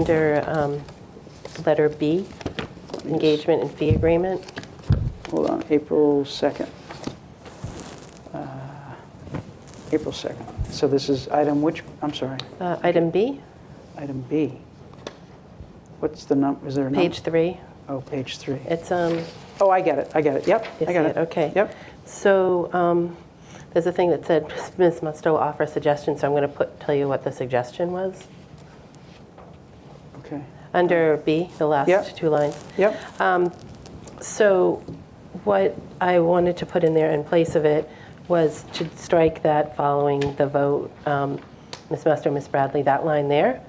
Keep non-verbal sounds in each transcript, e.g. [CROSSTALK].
Under um, letter B, engagement and fee agreement, Hold on, April 2nd. Uh, April 2nd. So this is item which, I'm sorry, Uh, item B, item B. What's the num, is there a number? page three, Oh, page three. it's, um, Oh, I get it, I get it, yep, You I got see it. it, okay. Yep, so um, there's a thing that said, Ms. Musto offer suggestions, so I'm going to put, tell you what the suggestion was. okay, Under B, the Yeah. last two lines. yep, So what I wanted to put in there in place of it was to strike that following the vote, um, Ms. Musto, Ms. Bradley, that line there.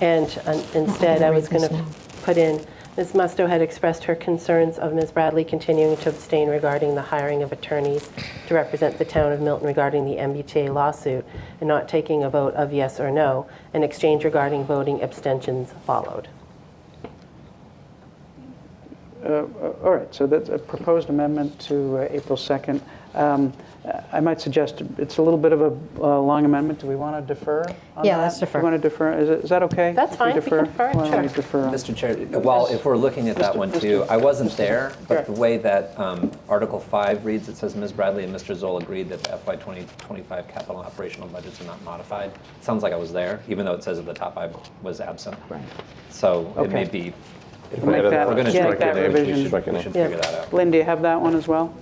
And um, instead, I was going to put in, Ms. Musto had expressed her concerns of Ms. Bradley continuing to abstain regarding the hiring of attorneys to represent the town of Milton regarding the MBTA lawsuit and not taking a vote of yes or no. An exchange regarding voting abstentions followed. Uh, all right, so that's a proposed amendment to uh, April 2nd. Um, I might suggest, it's a little bit of a uh, long amendment, do we want to defer on Yeah, that? let's defer. Do we want to defer, is it- is that okay? That's if fine, we can defer it, Why don't we sure. defer on- Mr. Chair, well, if we're looking at that one too, I wasn't there, but the way that um, Article 5 reads, it says Ms. Bradley and Mr. Zoll agreed that the FY 2025 capital and operational budgets are not modified. Sounds like I was there, even though it says at the top I was absent. So it may Okay. be, if Make we're that- going to yeah, strike make that that, we revision. should we should Yeah. figure that out. Lynn, do you have that one as well?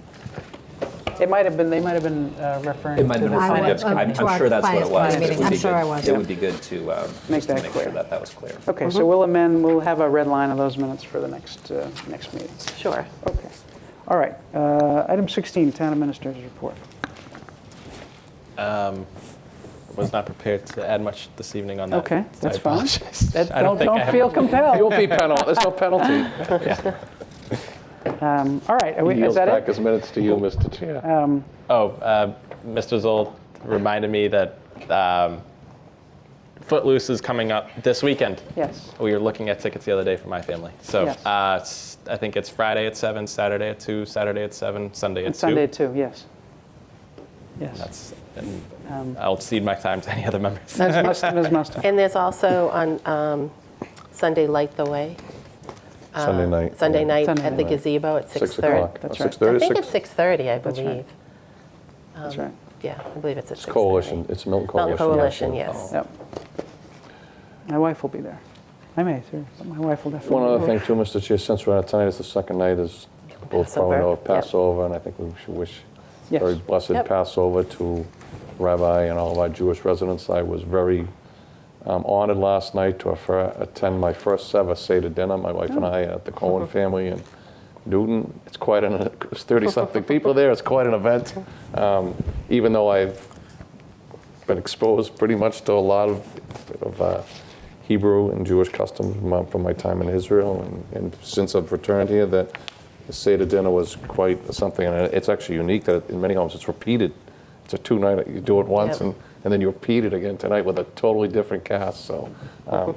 It might have been, they might have been uh, referring It might have to been, I kind went of- up I'm to I'm our sure that's what it finance was. committee It meeting. would I'm be sure good- I was, It yeah. would be good to, um, Make just to that make clear. sure that that was clear. Okay, Mm-hmm. so we'll amend, we'll have a red line of those minutes for the next, uh, next meeting. Sure. Okay. All right, uh, item 16, Town Administrator's Report. was not prepared to add much this evening on that. Okay, so that's I fine. apologize. That- I don't Don't think I don't have- feel compelled. You'll be penal, there's no penalty. [LAUGHS] Um, All right, are we- is Yields that back it? his minutes to you, Mr. Chair. Oh, uh, Mr. Zoll reminded me that um, Footloose is coming up this weekend. Yes. We were looking at tickets the other day for my family. So Yes. uh, it's- I think it's Friday at 7, Saturday at 2, Saturday at 7, Sunday at 2. Sunday too, yes. Yes. That's, and Um, I'll cede my time to any other members. Ms. Musto- Ms. Musto. And there's also on um, Sunday, Light the Way. Um, Sunday night. Sunday night Sunday at the night. gazebo at 6:30. Six o'clock. That's Uh, right. 6:30, I think it's six- 6:30, I That's right. believe. That's right. Yeah, I believe it's at 6:30. It's coalition, it's Milton Mount Coalition. Coalition, yes. Oh. Yep. My wife will be there. I may, too. My wife will definitely. One other thing too, Mr. Chair, since we're on it tonight, it's the second night is both Passover, probably know of yep. Passover, and I think we should wish Yes. very blessed Yep. Passover to Rabbi and all of our Jewish residents. I was very um, honored last night to affer- attend my first ever Seder dinner, my wife and I, at the Cohen family in Newton. It's quite an, it's 30-something people there, it's quite an event. Um, Even though I've been exposed pretty much to a lot of, of uh, Hebrew and Jewish customs from my, from my time in Israel, and, and since I've returned here, that the Seder dinner was quite something, and it's actually unique that in many homes it's repeated. It's a two-night, you do it once, Yep. and, and then you repeat it again tonight with a totally different cast. So, um,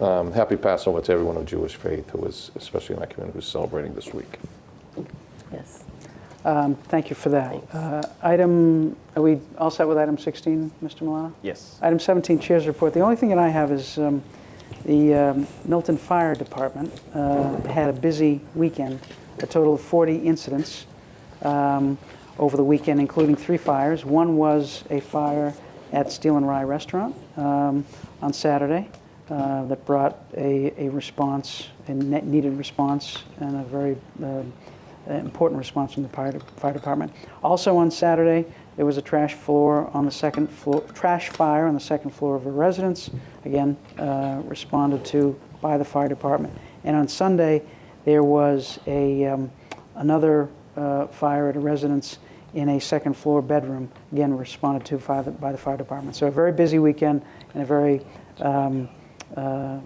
um, happy Passover to everyone of Jewish faith who is, especially in our community, who's celebrating this week. Yes. Um, Thank you for that. Uh, Item, are we all set with item 16, Mr. Milano? Yes. Item 17, Chair's Report. The only thing that I have is um, the um, Milton Fire Department uh, had a busy weekend, a total of 40 incidents um, over the weekend, including three fires. One was a fire at Steel and Rye Restaurant um, on Saturday uh, that brought a a response, a net- needed response, and a very um, an important response from the fire fire department. Also on Saturday, there was a trash floor on the second floor, trash fire on the second floor of a residence, again, uh, responded to by the fire department. And on Sunday, there was a, um, another uh, fire at a residence in a second floor bedroom, again, responded to by the, by the fire department. So a very busy weekend and a very um, uh,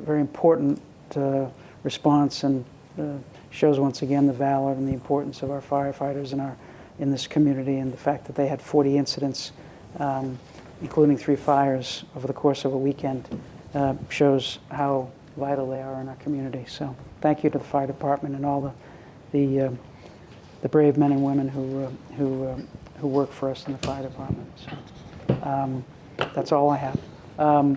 very important uh, response and uh, shows once again the valor and the importance of our firefighters in our in this community and the fact that they had 40 incidents, um, including three fires over the course of a weekend, uh, shows how vital they are in our community. So thank you to the fire department and all the the uh, the brave men and women who uh, who um who work for us in the fire department. So um, that's all I have. Um,